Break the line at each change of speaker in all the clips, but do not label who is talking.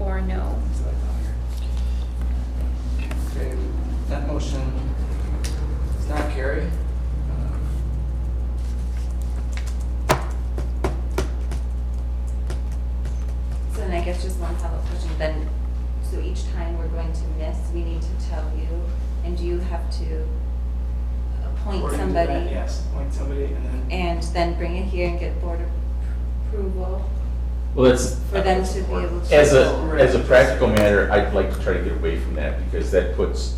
or no?
Okay, that motion does not carry. Uh,
So then I guess just one follow-up question, then, so each time we're going to miss, we need to tell you, and you have to appoint
According to that,
somebody?
Yes, appoint somebody and then.
And then bring it here and get board approval
Well, that's,
for them to be able to?
as a, as a practical matter, I'd like to try to get away from that because that puts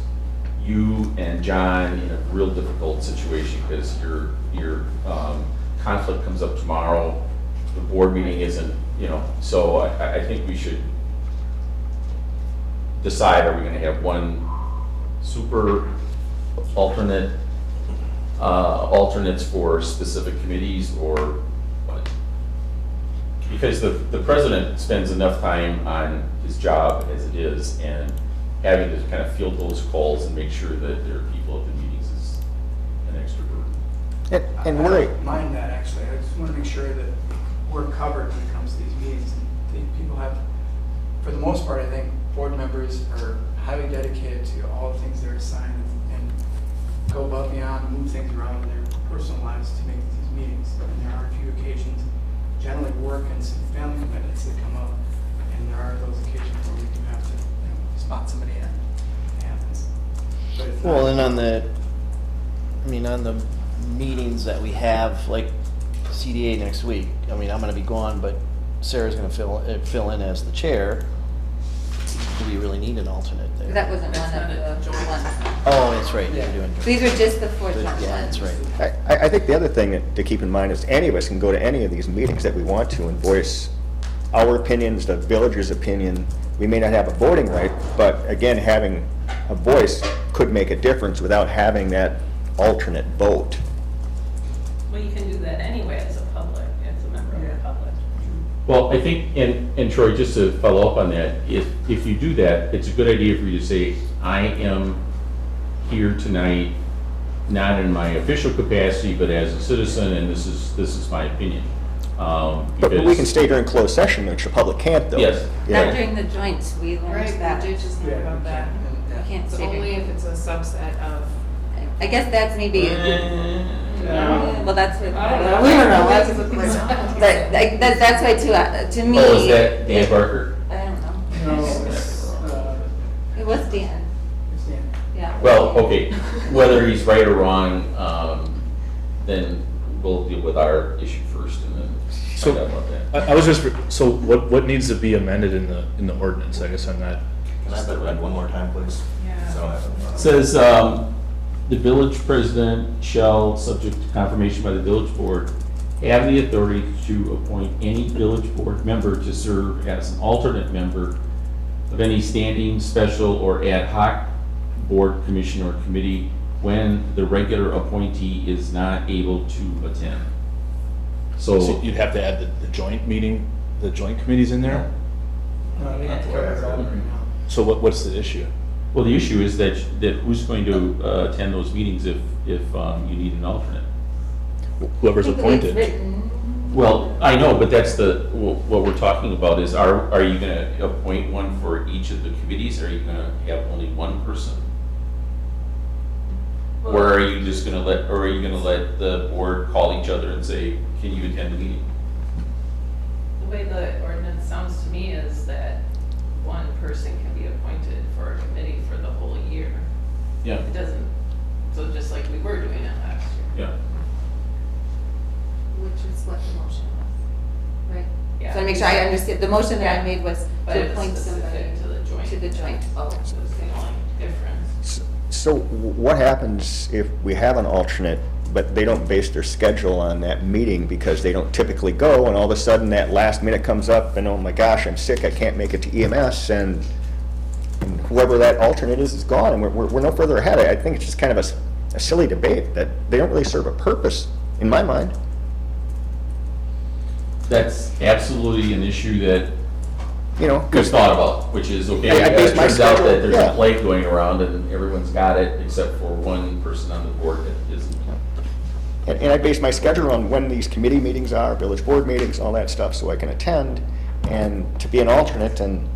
you and John in a real difficult situation because your, your um, conflict comes up tomorrow. The board meeting isn't, you know, so I, I think we should decide, are we gonna have one super alternate, uh, alternates for specific committees or what? Because the, the president spends enough time on his job as it is, and having to kind of field those calls and make sure that there are people at the meetings is an extra burden.
And
I-
and
I
we're,
don't mind that, actually. I just want to make sure that we're covered when it comes to these meetings. I think people have, for the most part, I think board members are highly dedicated to all the things they're assigned and go above and beyond, move things around in their personal lives to make these meetings. And there are a few occasions, generally work and some family commitments that come up. And there are those occasions where we do have to, you know, spot somebody in. It happens. But it's not-
well, and on the, I mean, on the meetings that we have, like CDA next week, I mean, I'm gonna be gone, but Sarah's gonna fill, uh, fill in as the chair. Do we really need an alternate there?
That wasn't one of the ones.
Oh, that's right, you're
Yeah.
doing.
These are just the four
Yeah,
joint ones.
that's right.
I, I I think the other thing that- to keep in mind is any of us can go to any of these meetings that we want to and voice our opinions, the village's opinion. We may not have a voting right, but again, having a voice could make a difference without having that alternate vote.
Well, you can do that anyway as a public, as a member of the public.
Well, I think, and, and Troy, just to follow up on that, if, if you do that, it's a good idea for you to say, I am here tonight, not in my official capacity, but as a citizen, and this is, this is my opinion. Um,
But but we can
because-
stay during closed session, which the public can't though.
Yes.
You
Not
know,
during the joints, we learned
Right,
that.
we did just
Yeah,
learn
you
about that.
can't- and- yeah.
You can't
It's
say
only
during-
if it's a subset of.
I guess that's maybe,
Eh.
No.
well, that's what.
I don't know.
We don't know.
That's
That's-
what we're-
That, that- that's why too, uh, to me.
Oh, is that Dan Barker?
I don't know.
No, it's, uh,
It was Dan,
it's Dan.
yeah.
Well, okay, whether he's right or wrong, um, then we'll deal with our issue first and then
So-
find out about that.
I, I was just, so what, what needs to be amended in the, in the ordinance? I guess I'm not,
Can I have that read one more time, please?
Yeah.
So I have-
Says, um, the village president shall, subject to confirmation by the village board, have the authority to appoint any village board member to serve as an alternate member of any standing, special, or ad hoc board, commission, or committee when the regular appointee is not able to attend.
so
So,
you'd have to add the, the joint meeting, the joint committees in there?
No, they have to cover it all right now.
So what, what's the issue?
well, the issue is that, that who's going to uh, attend those meetings if, if um, you need an alternate?
Whoever's
I think the way it's
appointed.
written-
Well, I know, but that's the, wh- what we're talking about is, are, are you gonna appoint one for each of the committees? Are you gonna have only one person? Or are you just gonna let, or are you gonna let the board call each other and say, can you attend the meeting?
The way the ordinance sounds to me is that one person can be appointed for a committee for the whole year.
Yeah,
It doesn't, so just like we were doing it last year.
yeah.
Which is what the motion was, right?
Yeah.
So I make sure I understand, the motion that I
Yeah.
made was
But
to
it's
appoint somebody
specific to the joint.
to the joint, oh.
That's the only difference.
S- So w- what happens if we have an alternate, but they don't base their schedule on that meeting because they don't typically go, and all of a sudden that last minute comes up, and oh my gosh, I'm sick, I can't make it to EMS, and and whoever that alternate is, is gone, and we're, we're we're no further ahead. I I think it's just kind of a s- a silly debate that they don't really serve a purpose, in my mind.
That's absolutely an issue that
You know,
was
'cause-
thought about, which is, okay,
I- I
it
based my
turns out that
schedule-
there's a
yeah.
plague going around and everyone's got it except for one person on the board that isn't.
And, and I base my schedule on when these committee meetings are, village board meetings, all that stuff, so I can attend. And to be an alternate and